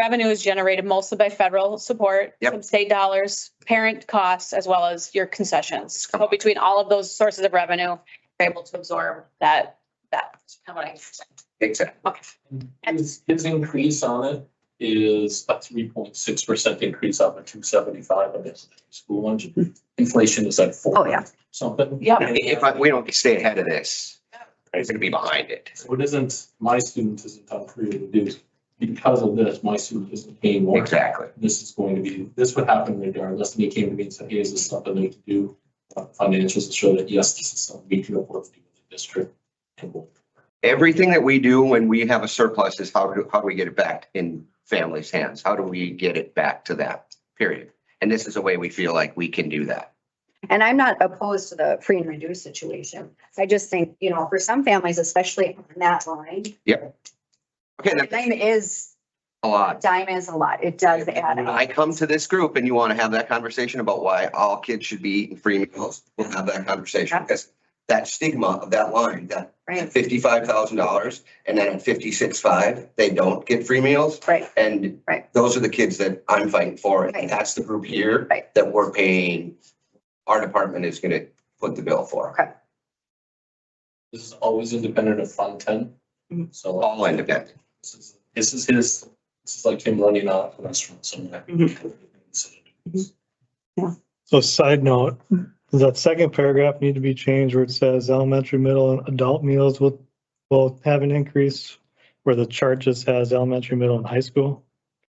Revenue is generated mostly by federal support, Yep. some state dollars, parent costs, as well as your concessions. Come So between all of those sources of revenue, you're able to absorb that, that. How about I? Exactly. Okay. His, his increase on it is a three point six percent increase off of two seventy-five of his school lunch. Inflation is at four. Oh, yeah. Something. Yep. If I- we don't stay ahead of this, it's gonna be behind it. So it isn't, my student isn't on free reduced. Because of this, my student isn't paying more. Exactly. This is going to be, this would happen regardless. And he came to me and said, hey, is this something they can do? Uh, Financials to show that, yes, this is something we can afford to do with the district. And we'll Everything that we do when we have a surplus is how do, how do we get it back in families' hands? How do we get it back to that period? And this is a way we feel like we can do that. And I'm not opposed to the free and reduced situation. I just think, you know, for some families, especially on that line, Okay, a that's dime is, a a lot. dime is a lot. It does add up. I come to this group and you want to have that conversation about why all kids should be eating free meals. We'll have that conversation because that stigma of that line, that Right, fifty-five thousand dollars and then at fifty-six-five, they don't get free meals. right. And Right. those are the kids that I'm fighting for. Right. And that's the group here Right. that we're paying. Our department is gonna put the bill for. Okay. This is always independent of Fund Ten, Mhm. so. All independent. This is, this is his, this is like him running out of a restaurant somewhere. So side note, does that second paragraph need to be changed where it says elementary, middle and adult meals will, will have an increase? Where the chart just has elementary, middle and high school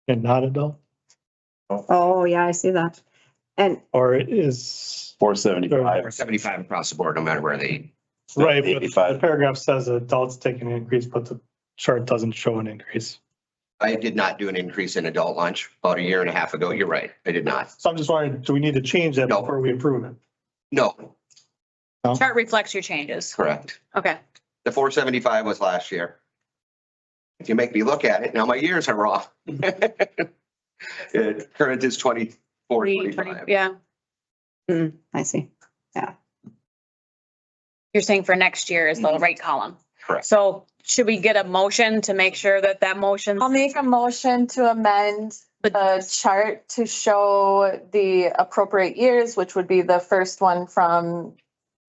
and not adult? Oh, yeah, I see that. And Or it is, Four seventy-five. Or seventy-five across the board, no matter where they. eat. right, but the 85. paragraph says adults take an increase, but the chart doesn't show an increase. I did not do an increase in adult lunch about a year and a half ago. You're right. I did not. So I'm just wondering, do we need to change that No. before we approve it? No, Chart reflects your changes. correct. Okay. The four seventy-five was last year. If you make me look at it, now my years are wrong. Uh, Current is twenty-four, twenty-five. Yeah. I see. You're saying for next year is the right column. Correct. So should we get a motion to make sure that that motion? I'll make a motion to amend the chart to show the appropriate years, which would be the first one from,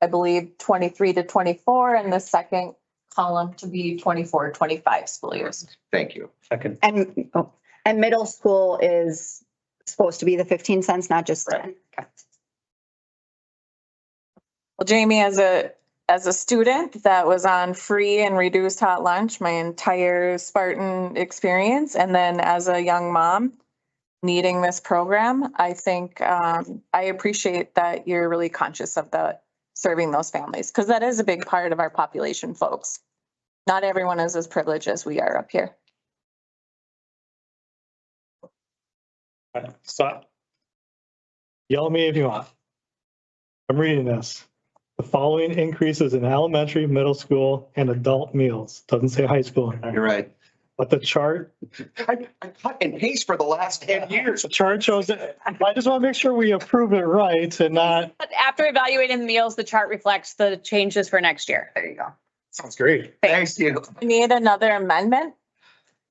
I believe, twenty-three to twenty-four, and the second column to be 24, 25 school years. Thank you. Second. And, oh, and middle school is supposed to be the fifteen cents, not just ten. Well, Jamie, as a, as a student that was on free and reduced hot lunch my entire Spartan experience, and then as a young mom needing this program, I think, um, I appreciate that you're really conscious of the serving those families, because that is a big part of our population, folks. Not everyone is as privileged as we are up here. Stop. Yell at me if you want. I'm reading this. The following increases in elementary, middle school, and adult meals. Doesn't say high school in You're there. right. But the chart, I, I cut and paste for the last ten years. the chart shows it. I just want to make sure we approve it right and not. But after evaluating the meals, the chart reflects the changes for next year. There you go. Sounds great. Thanks to you. We Need another amendment?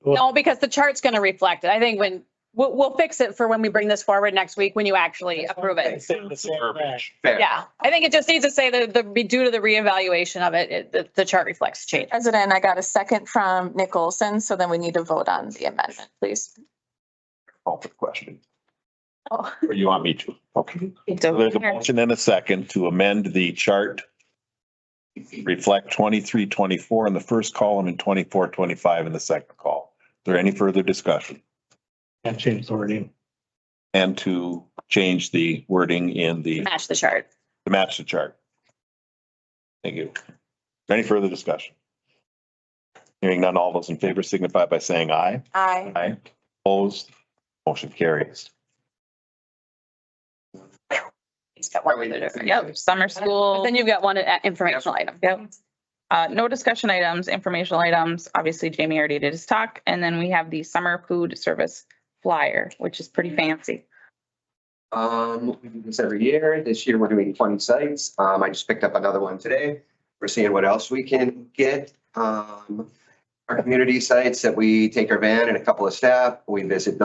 No, because the chart's going to reflect it. I think when, we'll, we'll fix it for when we bring this forward next week, when you actually approve it. Fair. Yeah, I think it just needs to say that the, due to the reevaluation of it, it, the, the chart reflects change. President, I got a second from Nick Olson, so then we need to vote on the amendment, please. Call for the question. Oh. Or you want me to? Okay. So There's a motion and a second to amend the chart. Reflect twenty-three, twenty-four in the first column and twenty-four, twenty-five in the second column. Is there any further discussion? And change the wording. And to change the wording in the, Match the chart. to match the chart. Thank you. Is there Any further discussion? Hearing none, all those in favor signify by saying aye. Aye. Aye. Opposed? Motion carries. He's got one other different. Yep, summer But school, then you've got one uh, informational item. yep. Uh, no discussion items, informational items. Obviously Jamie already did his talk. And then we have the summer food service flyer, which is pretty fancy. Um, we do this every year. This year, we're doing twenty sites. Um, I just picked up another one today. We're seeing what else we can get. Um, our community sites that we take our van and a couple of staff, we visit